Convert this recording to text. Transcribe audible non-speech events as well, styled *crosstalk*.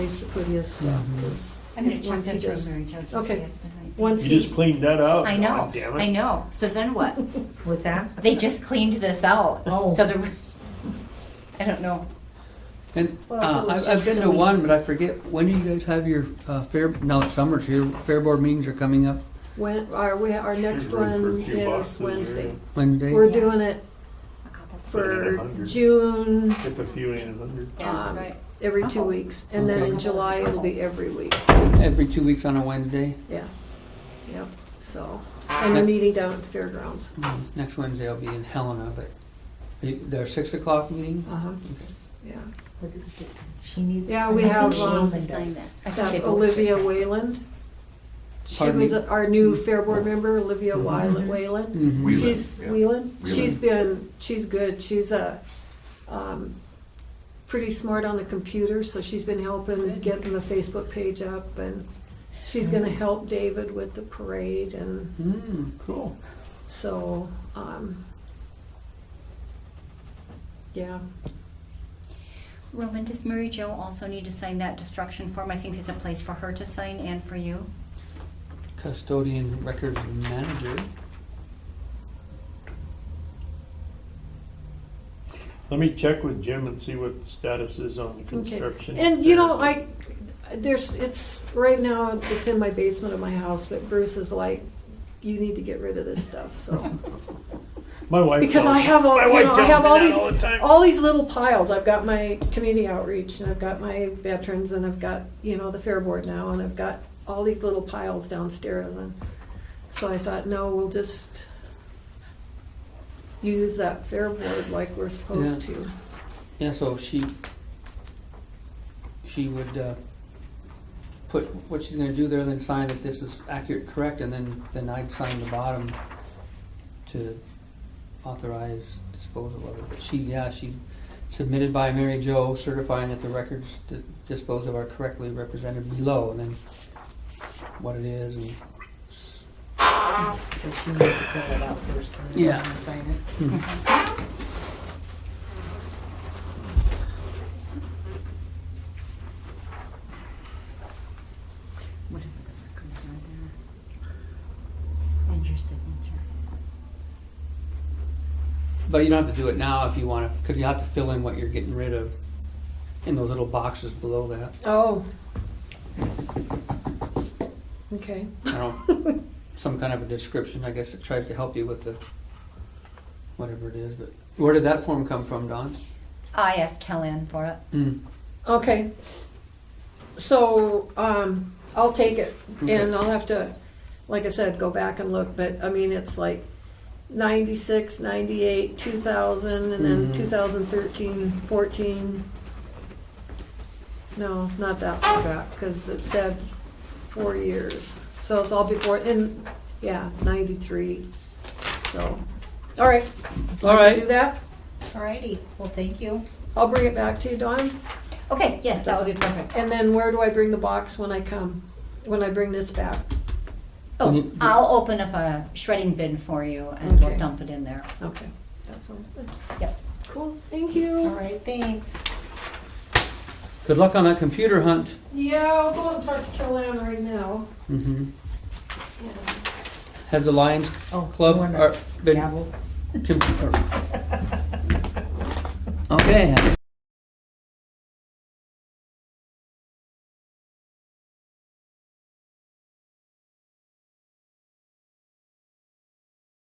place to put his stuff, 'cause I'm gonna check once he this room, does- Mary Jo, just see Okay. if there might be- Once You he, just cleaned that out. I know, God Oh, damn I it. know. So then *laughs* what? What's that? They just cleaned this out. Oh. So the, *laughs* I don't know. And Well, if it uh, was I've, just I've been to something- one, but I forget, when do you guys have your uh, fair, now it's summer, so your fair board meetings are coming up when, our, we- our next Should run for a one few bucks is in there. Wednesday. Wednesday? We're Yeah. doing it A couple. for Yeah, 100. June, If a few ain't a hundred. *laughs* Yeah, um, right. every two Oh. weeks, and then Okay. in July it'll be every week, Every two weeks on a Wednesday? yeah, yep, so. And we're Yeah. meeting down at the fairgrounds. Mm, Next Wednesday I'll be in Helena, but you- their six o'clock meeting? Uh-huh, yeah. What did we get? She needs. Yeah, I we think have, she um, needs Sign that. I think they That both Olivia did. Wayland. She Pardon was me? our new Mm-hmm. fair board member, Olivia Wyland- Wayland. Mhm. Wheeland, She's yeah. Wheelan. Wheelan. She's been, she's good. She's a, um, pretty smart on the computer, so she's been helping getting the Facebook page up and she's gonna help David with the parade and Mm, cool. so, um, yeah. Roman, does Mary Jo also need to sign that destruction form? I think there's a place for her to sign and for you. Custodian records manager. Let me check with Jim and see what the status is on the construction. And you know, I, there's, it's, right now, it's in my basement of my house, but Bruce is like, you need to get rid of this stuff, so. My wife. Because tells I me- have all, my you wife know, I tells have me all that these, the time. all these little piles. I've got my community outreach and I've got my veterans and I've got, you know, the fair board now and I've got all these little piles downstairs and so I thought, no, we'll just use that fair board like we're supposed to. Yeah, so she, she would uh, put what she's gonna do there, then sign that this is accurate, correct, and then, then I'd sign the bottom to authorize disposal of it. But she, yeah, she submitted by Mary Jo certifying that the records di- disposed of are correctly represented below, and then what it is, and So she needs to fill it out first and then Yeah. sign it. Whatever the records are there. And your signature. But you don't have to do it now if you want to, because you have to fill in what you're getting rid of in those little boxes below that. Oh. Okay. I don't, some kind of a description, I guess it tries to help you with the, whatever it is, but where did that form come from, Don? I asked Kellyanne for it. Mm, Okay. So, um, I'll take it Okay. and I'll have to, like I said, go back and look, but I mean, it's like ninety-six, ninety-eight, two thousand, and then Mhm. two thousand thirteen, fourteen. No, not that far back, cause it said four years. So it's all before, and, yeah, ninety-three, so, all right. All I can right. Do that. Alrighty, well, thank you. I'll bring it back to you, Dawn. Okay, yes, that would be perfect. And then where do I bring the box when I come, when I bring this back? Oh, Mm. I'll open up a shredding bin for you and we'll Okay. dump it in there. Okay, that sounds good. Yep. Cool, thank you. Alright, thanks. Good luck on that computer hunt. Yeah, I'll go and talk to Kellan right now. Mm-hmm. Has the Lions Oh, Club uh, wonder- are, been, gavel. com- or- okay,